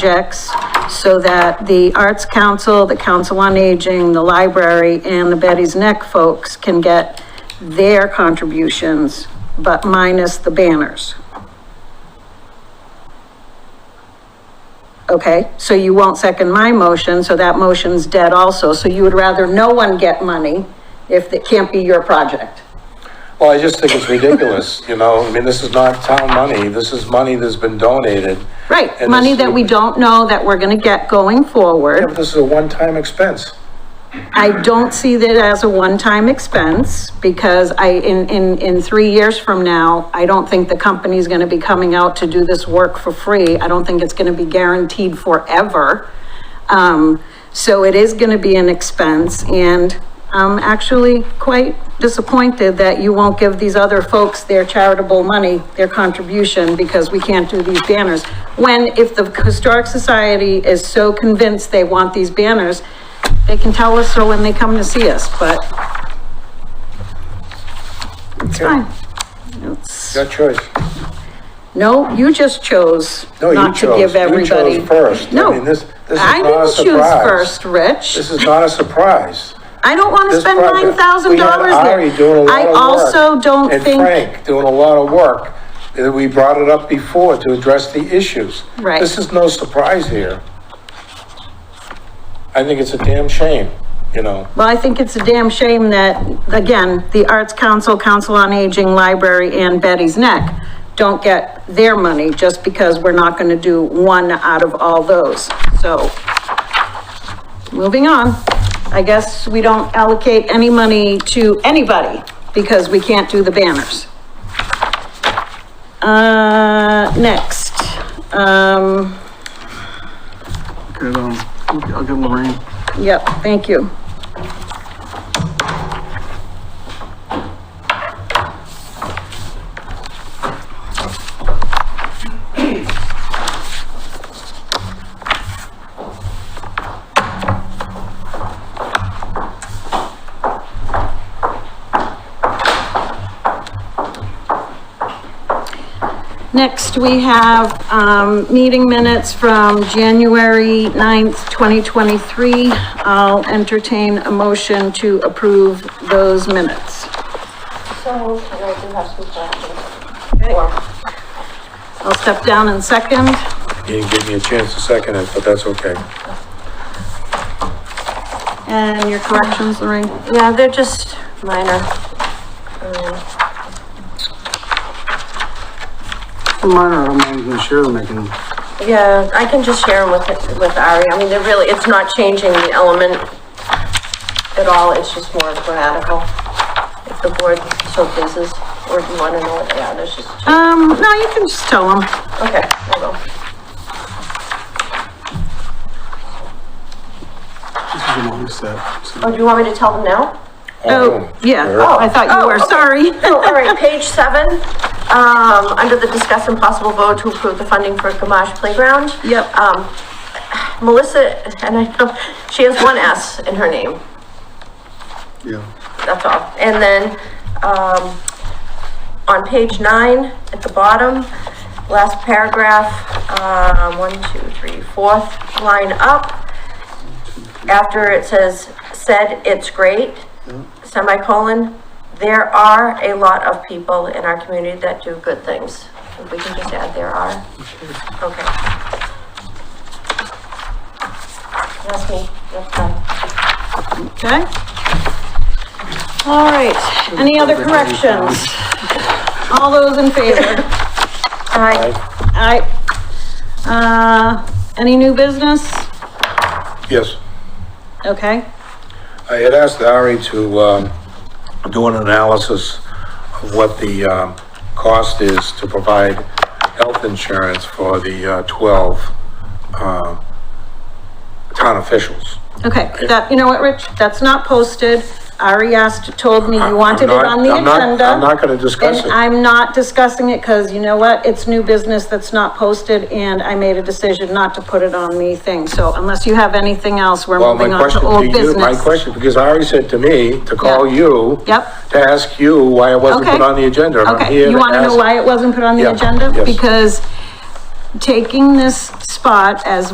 projects so that the Arts Council, the Council on Aging, the library, and the Betty's Neck folks can get their contributions, but minus the banners. Okay, so you won't second my motion, so that motion's dead also. So you would rather no one get money if it can't be your project? Well, I just think it's ridiculous, you know, I mean, this is not town money, this is money that's been donated. Right, And money this- that we don't know that we're gonna get going Yeah, forward. but This is a one-time expense. I don't see that as a one-time expense because I, in, in, in three years from now, I don't think the company's gonna be coming out to do this work for free. I don't think it's gonna be guaranteed forever. Um, so it is gonna be an expense and I'm actually quite disappointed that you won't give these other folks their charitable money, their contribution, because we can't do these banners. When, if the Historic Society is so convinced they want these banners, they can tell us so when they come to see us, but it's fine. It's- Your choice. No, you just chose No, you not to chose. give You chose everybody. first. I No. mean, this- this is I not a didn't choose surprise. first, Rich. This is not a surprise. I don't want to This spend project- nine thousand We dollars had there. Ari doing a lot I of work. also don't think. And Frank doing a lot of work. Uh, We brought it up before to address the issues. Right. This is no surprise here. I think it's a damn shame, you know. Well, I think it's a damn shame that, again, the Arts Council, Council on Aging, Library, and Betty's Neck don't get their money just because we're not gonna do one out of all those. So, moving on, I guess we don't allocate any money to anybody because we can't do the banners. Uh, next, um, Good, um, I'll get Lorraine. yep, thank you. Next, we have, um, meeting minutes from January 9th, 2023. I'll entertain a motion to approve those minutes. So moved, and I do have some questions. Or- I'll step down in second. You didn't give me a chance to second it, but that's okay. And your corrections, Lorraine? Yeah, they're just minor. Um, Mine are, I'm not even sure them, I can, Yeah, I can just share them with, with Ari. I mean, they're really, it's not changing the element at all. It's just more grammatical. If the board so pleases, or if you want to know what they are, there's just, Um, no, you can just tell them. okay, hold on. this is a long set, so. Oh, do you want me to tell them now? Oh, yeah, sure. I thought you Oh, were, okay. sorry. So, all right, page seven, um, under the discuss and possible vote to approve the funding for Gamache Playground. Yep. Um, Melissa, and I know, she has one S in her name, Yeah, that's all. And then, um, on page nine, at the bottom, last paragraph, um, one, two, three, fourth line up. After it says, said it's great, semicolon, there are a lot of people in our community that do good things. If we can just add there are. Okay. That's me, that's done. Okay. All right, any other corrections? All those in favor? Aye. Aye. Uh, any new business? Yes. Okay. I had asked Ari to, um, do an analysis of what the, um, cost is to provide health insurance for the, uh, twelve, um, town officials. Okay, that, you know what, Rich, that's not posted. Ari asked, told me I- you wanted it I'm not- on the I'm not- agenda. I'm not gonna discuss And it. I'm not discussing it because you know what? It's new business that's not posted and I made a decision not to put it on the thing. So unless you have anything else, we're Well, my moving on to question old to you, business. my question, because Ari said to me to call Yeah. you. Yep. To ask you why it wasn't Okay. put on the agenda. and I'm here Okay, you wanna know ask- why it wasn't put on the Yeah, agenda? yes. Because taking this spot as